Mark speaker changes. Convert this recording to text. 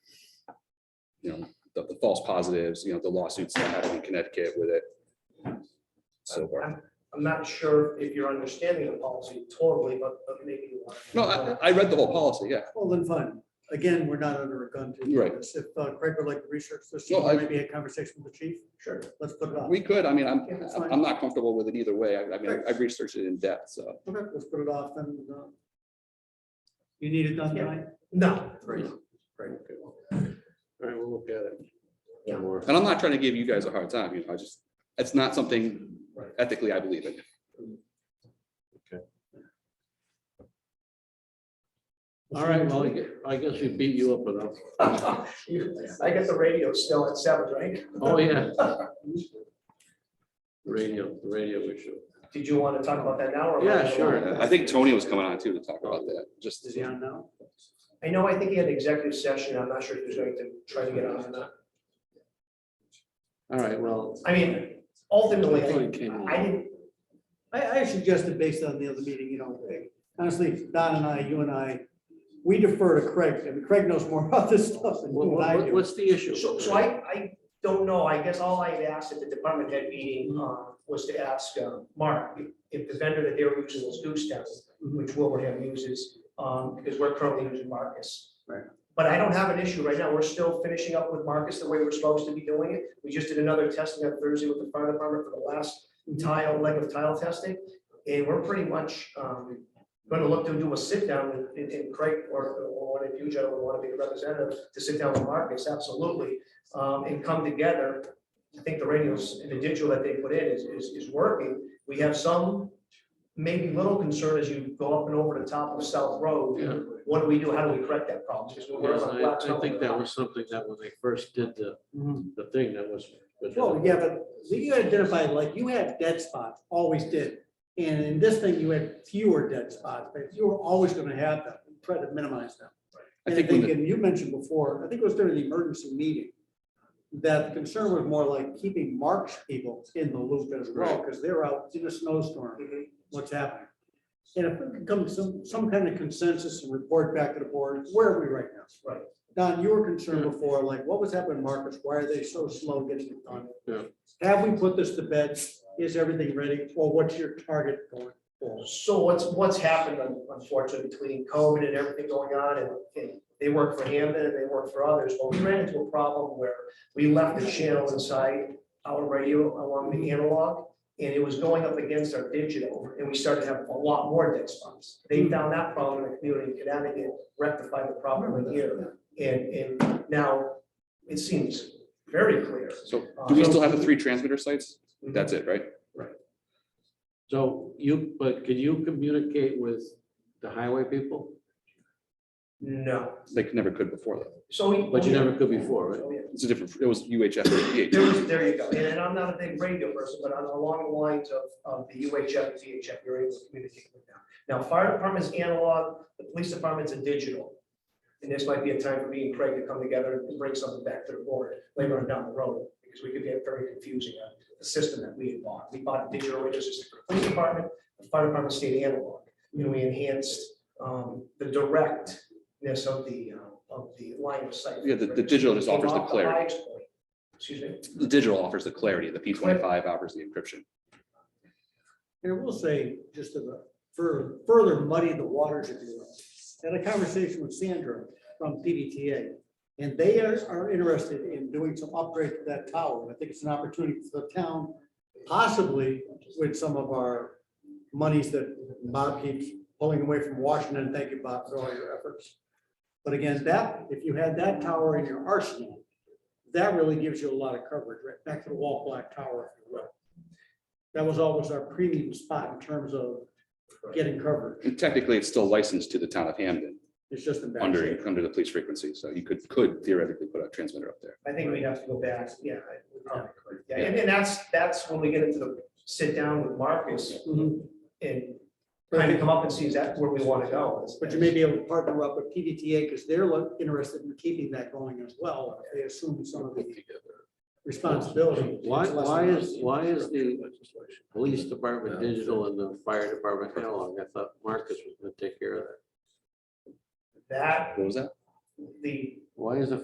Speaker 1: you know, the, the false positives, you know, the lawsuits that happened in Connecticut with it. So far.
Speaker 2: I'm not sure if you're understanding the policy totally, but, but maybe you are.
Speaker 1: No, I, I read the whole policy, yeah.
Speaker 3: Well, then fine. Again, we're not under a gun to do
Speaker 1: Right.
Speaker 3: this. If uh, Craig would like to research this, or
Speaker 1: No, I-
Speaker 3: maybe a conversation with the chief,
Speaker 2: Sure.
Speaker 3: let's put it on.
Speaker 1: We could, I mean, I'm,
Speaker 3: Yeah, that's
Speaker 1: I'm-
Speaker 3: fine.
Speaker 1: I'm not comfortable with it either way. I, I mean, I- I researched it in depth, so.
Speaker 3: Okay, let's put it off and. uh, You need it done
Speaker 2: Yeah.
Speaker 3: tonight?
Speaker 2: No.
Speaker 3: Great.
Speaker 4: All right, we'll look at it.
Speaker 2: Yeah.
Speaker 4: Or-
Speaker 1: And I'm not trying to give you guys a hard time, you know, I just, it's not something
Speaker 2: Right.
Speaker 1: ethically I believe in.
Speaker 4: All right, well, I gue- I guess we beat you up enough.
Speaker 2: I get the radio still at seven, right?
Speaker 4: Oh, yeah. Radio, the radio issue.
Speaker 2: Did you want to talk about that now? or-
Speaker 4: Yeah, sure.
Speaker 1: I think Tony was coming on too to talk about that, just.
Speaker 3: Is he on now?
Speaker 2: I know, I think he had an executive session. I'm not sure if he was going to try to get on or not.
Speaker 4: All right, well.
Speaker 2: I mean, ultimately, I
Speaker 4: Tony
Speaker 2: think-
Speaker 4: came
Speaker 2: I
Speaker 4: on.
Speaker 2: didn't,
Speaker 3: I, I suggested based on the other meeting, you know, honestly, Don and I, you and I, we defer to Craig. I mean, Craig knows more about this stuff than
Speaker 4: What-
Speaker 3: you and I
Speaker 4: what-
Speaker 3: do.
Speaker 4: What's the issue?
Speaker 2: so, so I, I don't know. I guess all I had asked at the department head meeting uh, was to ask uh, Mark if- if the vendor that they were using was Goose Town, which Wilbraham uses, um, because we're currently using Marcus.
Speaker 3: Right.
Speaker 2: But I don't have an issue right now. We're still finishing up with Marcus the way we're supposed to be doing it. We just did another testing on Thursday with the fire department for the last tile, leg of tile testing. And we're pretty much um, going to look to do a sit down with- and and Craig or or one of you gentlemen want to be a representative to sit down with Marcus, absolutely. um, And come together. I think the radios and the digital that they put in is, is, is working. We have some maybe little concern as you go up and over the top of South Road.
Speaker 4: Yeah,
Speaker 2: What do we do? How do we correct that problem? Because we're
Speaker 4: yes,
Speaker 2: on
Speaker 4: I,
Speaker 2: Black
Speaker 4: I think
Speaker 2: Mountain.
Speaker 4: that was something that when they first did the,
Speaker 3: Mhm.
Speaker 4: the thing that was. was-
Speaker 3: Well, yeah, but you identified, like, you had dead spots, always did. And in this thing, you had fewer dead spots, but you were always gonna have them, try to minimize them.
Speaker 1: I
Speaker 3: And
Speaker 1: think when the-
Speaker 3: and you mentioned before, I think it was during the emergency meeting, that the concern was more like keeping Mark's people in the loop as well, because they're out in a snowstorm,
Speaker 1: Mm-hmm.
Speaker 2: Mhm.
Speaker 3: what's happening. And if we could come to some, some kind of consensus and report back to the board, where are we right now?
Speaker 2: Right.
Speaker 3: Don, you were concerned before, like, what was happening, Marcus? Why are they so slow getting it done?
Speaker 4: Yeah.
Speaker 3: Have we put this to bed? Is everything ready? Or what's your target going forward?
Speaker 2: So what's, what's happened un- unfortunately between COVID and everything going on and, and they work for Hampton and they work for others, but we ran into a problem where we left the channel inside our radio along the analog and it was going up against our digital and we started to have a lot more dead spots. They
Speaker 4: Hmm.
Speaker 2: found that problem in the community in Connecticut, rectified the problem right here. And, and now it seems very clear.
Speaker 1: So do we still have the three transmitter sites? That's it, right?
Speaker 4: So you, but can you communicate with the highway people?
Speaker 2: No,
Speaker 1: They could- never could before that.
Speaker 2: so. we-
Speaker 4: But you never could before, right?
Speaker 2: Oh, yeah.
Speaker 1: It's a different, it was UHF. VHF.
Speaker 2: There was, there you go, and and I'm not a big radio person, but I'm along the lines of, of the UHF, and VHF, you're able to communicate with them. Now, fire department's analog, the police department's a digital. And this might be a time for me and Craig to come together and bring something back to the board later on down the road, because we could get very confusing on the system that we had bought. We bought a digital radio system for the police department, the fire department stayed analog, you know, we enhanced, um, the directness of the, uh, of the line of sight.
Speaker 1: Yeah, the, the digital just offers the
Speaker 2: Came off
Speaker 1: clarity.
Speaker 2: highest point. Excuse me?
Speaker 1: The digital offers the clarity. The P twenty-five offers the encryption.
Speaker 3: And I will say, just to further, further muddy the waters, if you will, had a conversation with Sandra from PDTA. And they are, are interested in doing some upgrade to that tower. And I think it's an opportunity for the town, possibly with some of our monies that Bob keeps pulling away from Washington. Thank you, Bob, for all your efforts. But again, that, if you had that tower in your arsenal, that really gives you a lot of coverage, right back to the wall black tower, if you will. That was always our premium spot in terms of getting coverage.
Speaker 1: And technically, it's still licensed to the town of Hamden
Speaker 3: It's just embarrassing.
Speaker 1: under, under the police frequency. So you could, could theoretically put a transmitter up there.
Speaker 2: I think we'd have to go back, yeah. I- we
Speaker 3: Oh.
Speaker 2: probably could. Yeah, and then that's, that's when we get into the sit down with Marcus
Speaker 3: Mhm.
Speaker 2: and kind of come up and see is that where we want to go. is-
Speaker 3: But you may be able to partner up with PDTA because they're lo- interested in keeping that going as well. They assume some of the responsibility.
Speaker 4: Why, why is, why is the police department digital and the fire department analog? I thought Marcus was gonna take care of that.
Speaker 2: That,
Speaker 1: What was that?
Speaker 2: the
Speaker 4: Why is the